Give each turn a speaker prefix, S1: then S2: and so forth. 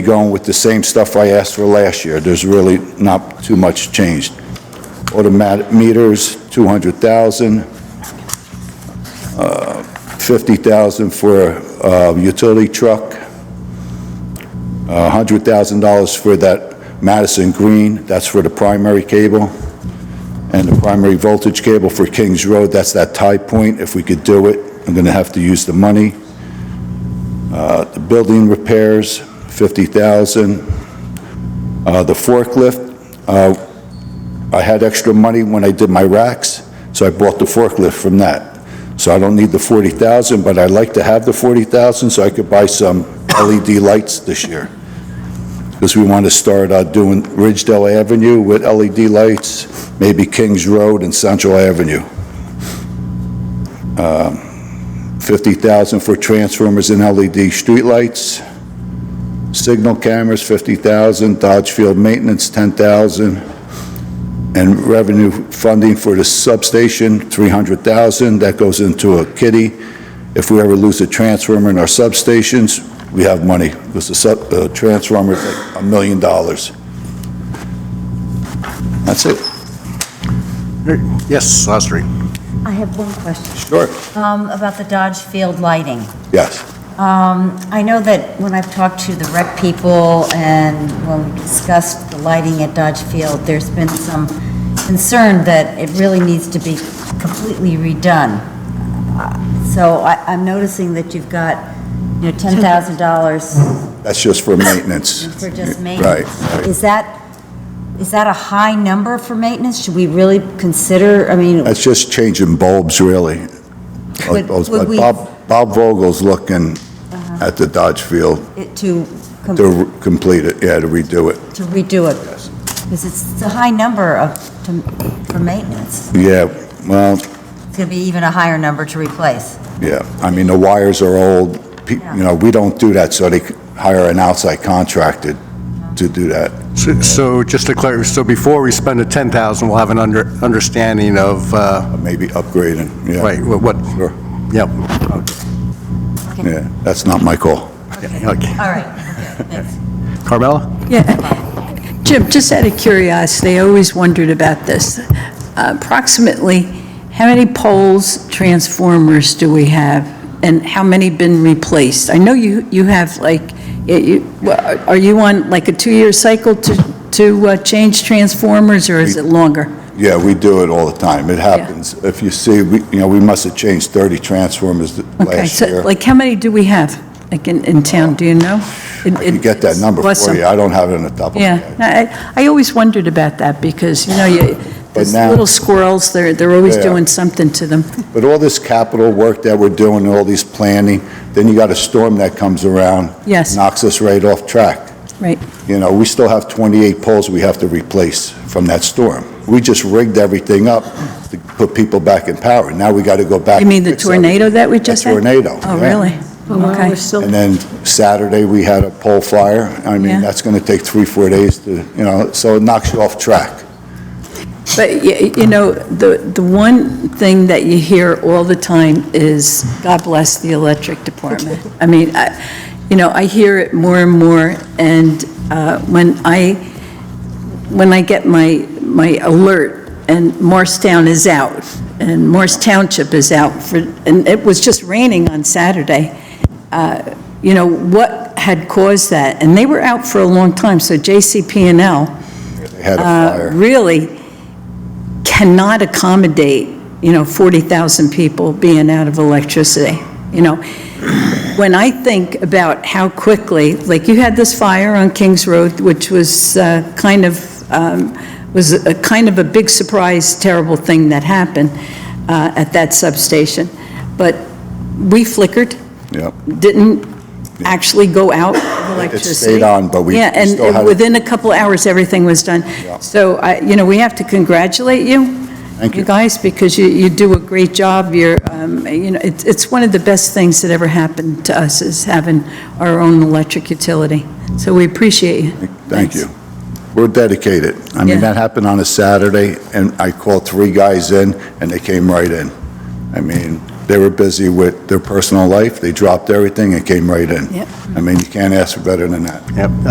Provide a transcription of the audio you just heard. S1: be going with the same stuff I asked for last year. There's really not too much changed. Automatic meters, 200,000, uh, 50,000 for uh, utility truck, Uh, $100,000 for that Madison Green, that's for the primary cable, and the primary voltage cable for Kings Road, that's that tie point, if we could do it, I'm going to have to use the money. Uh, The building repairs, 50,000. Uh, The forklift, uh, I had extra money when I did my racks, so I bought the forklift from that. So I don't need the 40,000, but I'd like to have the 40,000 so I could buy some LED lights this year. Because we want to start uh, doing Ridgedale Avenue with LED lights, maybe Kings Road and Central Avenue. Um, 50,000 for transformers and LED streetlights. Signal cameras, 50,000, Dodge Field Maintenance, 10,000, and revenue funding for the substation, 300,000, that goes into a kitty. If we ever lose a transformer in our substations, we have money, because the sub, the transformer is like a million dollars. That's it.
S2: Yes, Sastry.
S3: I have one question
S1: Sure.
S3: um, about the Dodge Field lighting.
S1: Yes.
S3: Um, I know that when I've talked to the rec people and when we discussed the lighting at Dodge Field, there's been some concern that it really needs to be completely redone. So I- I'm noticing that you've got, you know, $10,000
S1: That's just for maintenance.
S3: for just
S1: Right,
S3: maintenance.
S1: right.
S3: Is that, is that a high number for maintenance? Should we really consider, I mean,
S1: That's just changing bulbs, really.
S3: Would- would we-
S1: Bob Bob Vogel's looking at the Dodge Field
S3: it to... com-
S1: to re- complete it, yeah, to redo it.
S3: to redo it? Because it's it's a high number of, to- for maintenance.
S1: Yeah, well,
S3: It's going to be even a higher number to replace.
S1: yeah, I mean, the wires are old, Pe-
S3: Yeah.
S1: you know, we don't do that, so they c- hire an outside contractor to do that.
S2: So just to clarify, so before we spend the 10,000, we'll have an under, understanding of, uh,
S1: Maybe upgrading, yeah.
S2: right, what, what-
S1: Sure.
S2: yep,
S1: Yeah, that's not my call.
S2: okay.
S3: All right, okay, thanks.
S2: Carmella?
S4: Jim, just out of curiosity, I always wondered about this. Approximately, how many poles, transformers do we have, and how many been replaced? I know you, you have like, it- you- well, are you on like a two-year cycle to, to uh, change transformers, or is it longer?
S1: Yeah, we do it all the time, it happens. If you see, we, you know, we must have changed 30 transformers th-
S4: Okay,
S1: last
S4: so
S1: year.
S4: like, how many do we have, like in, in town, do you know?
S1: I can get that number for you, I don't have it on the top of my
S4: Yeah,
S1: head.
S4: I, I always wondered about that, because, you know, you,
S1: But
S4: those
S1: now-
S4: little squirrels, they're, they're always
S1: Yeah.
S4: doing something to them.
S1: But all this capital work that we're doing, all these planning, then you got a storm that comes around.
S4: Yes.
S1: Knocks us right off track.
S4: Right,
S1: You know, we still have 28 poles we have to replace from that storm. We just rigged everything up to put people back in power. Now we got to go back.
S4: you mean the
S1: and fix everything.
S4: tornado that we
S1: The
S4: just had?
S1: tornado,
S4: Oh,
S1: yeah.
S4: really? Okay.
S1: And then Saturday, we had a pole fire. I mean,
S4: Yeah.
S1: that's going to take three, four days to, you know, so it knocks you off track.
S4: But, y- you know, the, the one thing that you hear all the time is, God bless the electric department. I mean, I, you know, I hear it more and more, and uh, when I, when I get my, my alert, and Morristown is out, and Morris Township is out for, and it was just raining on Saturday, uh, you know, what had caused that? And they were out for a long time, so JCP&L
S1: They had a
S4: uh,
S1: fire.
S4: really cannot accommodate, you know, 40,000 people being out of electricity, you know? When I think about how quickly, like you had this fire on Kings Road, which was uh, kind of, um, was a kind of a big surprise, terrible thing that happened uh, at that substation. But we flickered,
S1: Yep.
S4: didn't actually go out of
S1: It
S4: electricity.
S1: stayed on, but we we
S4: Yeah, and
S1: still had.
S4: it-
S1: a-
S4: within a couple hours, everything was done. So, I- you know, we have to congratulate you,
S1: Thank
S4: you
S1: you.
S4: guys, because you, you do a great job. You're, um, you know, it's, it's one of the best things that ever happened to us, is having our own electric utility. So we appreciate you.
S1: Thank
S4: Thanks.
S1: you. We're dedicated. I mean,
S4: Yeah.
S1: that happened on a Saturday, and I called three guys in, and they came right in. I mean, they were busy with their personal life, they dropped everything and came right in.
S4: Yep.
S1: I mean, you can't ask for better than that.
S2: Yep.